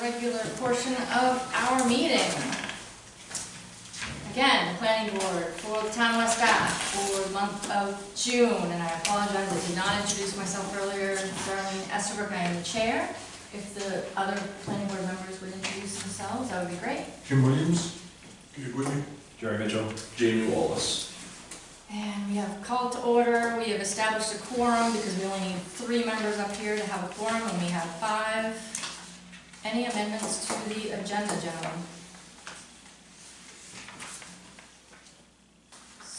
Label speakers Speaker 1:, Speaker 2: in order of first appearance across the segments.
Speaker 1: regular portion of our meeting. Again, planning board for the town of West Bath for the month of June, and I apologize, I did not introduce myself earlier. Darlene Estabrook, I am the chair. If the other planning board members would introduce themselves, that would be great.
Speaker 2: Jim Williams, you with me?
Speaker 3: Jerry Mitchell. Jamie Wallace.
Speaker 1: And we have called to order, we have established a quorum because we only need three members up here to have a quorum, and we have five. Any amendments to the agenda, gentlemen?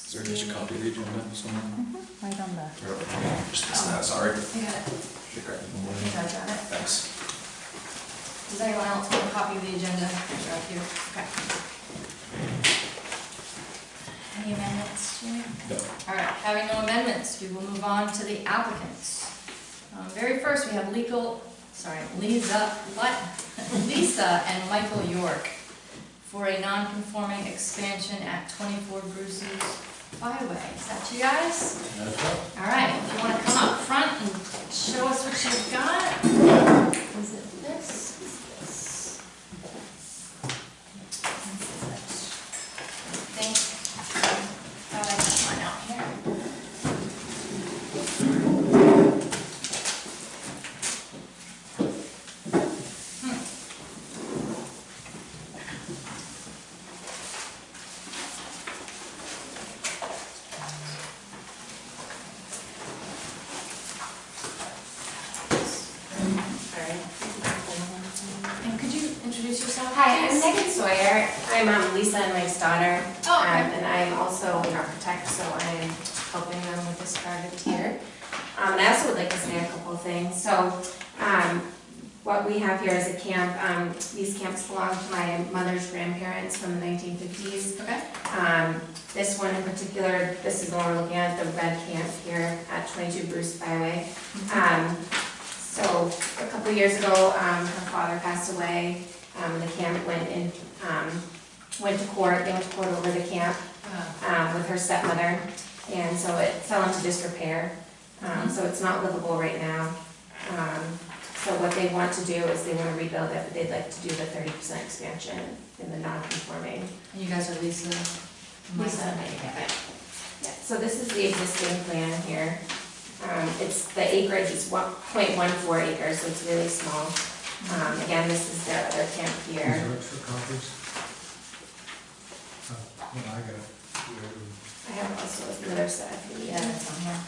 Speaker 3: Is there just a copy of the agenda somewhere?
Speaker 4: Right on the,
Speaker 3: Just missing that, sorry.
Speaker 1: I got it,
Speaker 3: Okay,
Speaker 1: I think I got it.
Speaker 3: Thanks.
Speaker 1: Does anyone else want a copy of the agenda? They're up here, okay. Any amendments, Jimmy?
Speaker 3: No.
Speaker 1: All right, having no amendments, we will move on to the applicants. Um, Very first, we have legal, sorry, Lisa, what? Lisa and Michael York for a non-conforming expansion at 24 Bruce's Byway. Is that you guys? All right, if you want to come up front and show us what you've got. Is it this? Is this? I think, I like this one out here. And could you introduce yourself?
Speaker 5: Hi, I'm
Speaker 1: please?
Speaker 5: Megan Sawyer. I'm um, Lisa and Mike's daughter.
Speaker 1: Oh,
Speaker 5: Um,
Speaker 1: okay.
Speaker 5: And I'm also an architect, so I'm helping them with this project here. Um, And I also would like to say a couple of things. So um, what we have here is a camp. Um, These camps belong to my mother's grandparents from the 1950s.
Speaker 1: Okay,
Speaker 5: Um, This one in particular, this is the one we're looking at, the red camp here at 22 Bruce Byway. Um, So a couple years ago, um, her father passed away. Um, The camp went in, um, went to court, they went to court over the camp
Speaker 1: uh,
Speaker 5: um, with her stepmother. And so it fell into disrepair. Um, So it's not livable right now. Um, So what they want to do is they want to rebuild it, but they'd like to do the 30% expansion in the non-conforming
Speaker 1: and you guys are Lisa? and
Speaker 5: Lisa,
Speaker 1: Michael.
Speaker 5: yeah. Yeah, So this is the existing plan here. Um, it's, the acreage is one, point one four acres, so it's really small. Um, again, this is their other camp
Speaker 2: These
Speaker 5: here.
Speaker 2: are extra copies. Oh, Well, I got it.
Speaker 5: I have also another set for you.
Speaker 1: Yeah, that's on here.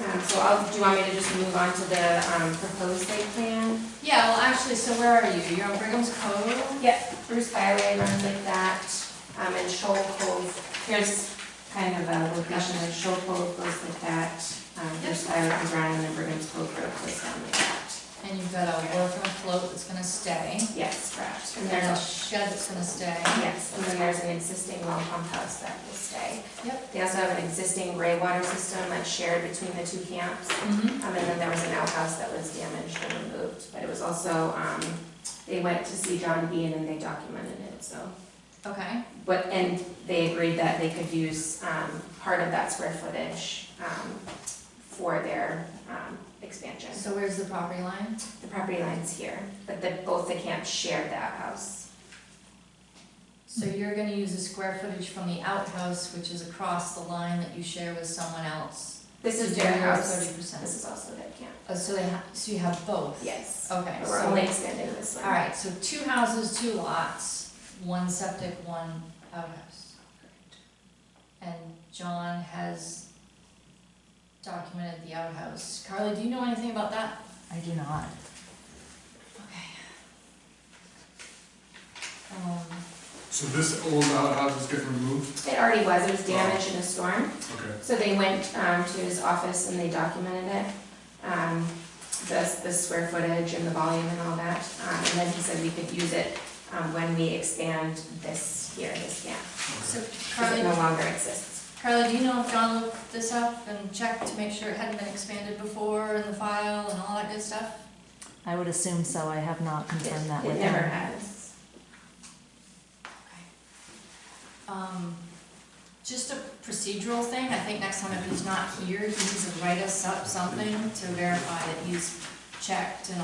Speaker 5: Um, so I'll, do you want me to just move on to the, um, proposed site plan?
Speaker 1: Yeah, well, actually, so where are you? You're on Brigham's Cove?
Speaker 5: Yep. Bruce Byway runs like that, um, and Shoal Cove, here's kind of a location, like Shoal Cove goes like that. Um, Bruce Byway runs around and then Brigham's Cove Road goes down like that.
Speaker 1: And you've got a wharf and a float that's gonna stay.
Speaker 5: Yes, correct.
Speaker 1: And there's a shed that's gonna stay.
Speaker 5: Yes, and then there's an existing well pump house that will stay.
Speaker 1: Yep.
Speaker 5: They also have an existing gray water system that's shared between the two camps.
Speaker 1: Mm-hmm.
Speaker 5: Um, and then there was an outhouse that was damaged and removed, but it was also, um, they went to see John Bean and they documented it, so.
Speaker 1: Okay,
Speaker 5: But, and they agreed that they could use, um, part of that square footage, um, for their, um, expansion.
Speaker 1: so where's the property line?
Speaker 5: The property line's here, but the, both the camps shared the outhouse.
Speaker 1: So you're gonna use the square footage from the outhouse, which is across the line that you share with someone else.
Speaker 5: This is
Speaker 1: to do
Speaker 5: their
Speaker 1: your
Speaker 5: house.
Speaker 1: Thirty percent.
Speaker 5: This is also their camp.
Speaker 1: Oh, so they ha, so you have both?
Speaker 5: Yes.
Speaker 1: Okay,
Speaker 5: But We're only
Speaker 1: so,
Speaker 5: extending this one.
Speaker 1: all right, so two houses, two lots, one septic, one outhouse. And John has documented the outhouse. Carly, do you know anything about that?
Speaker 4: I do not.
Speaker 1: Okay. Um,
Speaker 2: So this old outhouse is getting removed?
Speaker 5: It already was, it was damaged in a storm,
Speaker 2: Okay.
Speaker 5: so they went um, to his office and they documented it. um, The, the square footage and the volume and all that, Um, and then he said we could use it um, when we expand this here, this camp.
Speaker 1: so
Speaker 5: Because it
Speaker 1: Carly,
Speaker 5: no longer exists.
Speaker 1: Carly, do you know if John looked this up and checked to make sure it hadn't been expanded before in the file and all that good stuff?
Speaker 4: I would assume so, I have not confirmed that with
Speaker 5: It never
Speaker 4: them.
Speaker 5: has.
Speaker 1: Um, just a procedural thing, I think next time if he's not here, he needs to write us up something to verify that he's checked and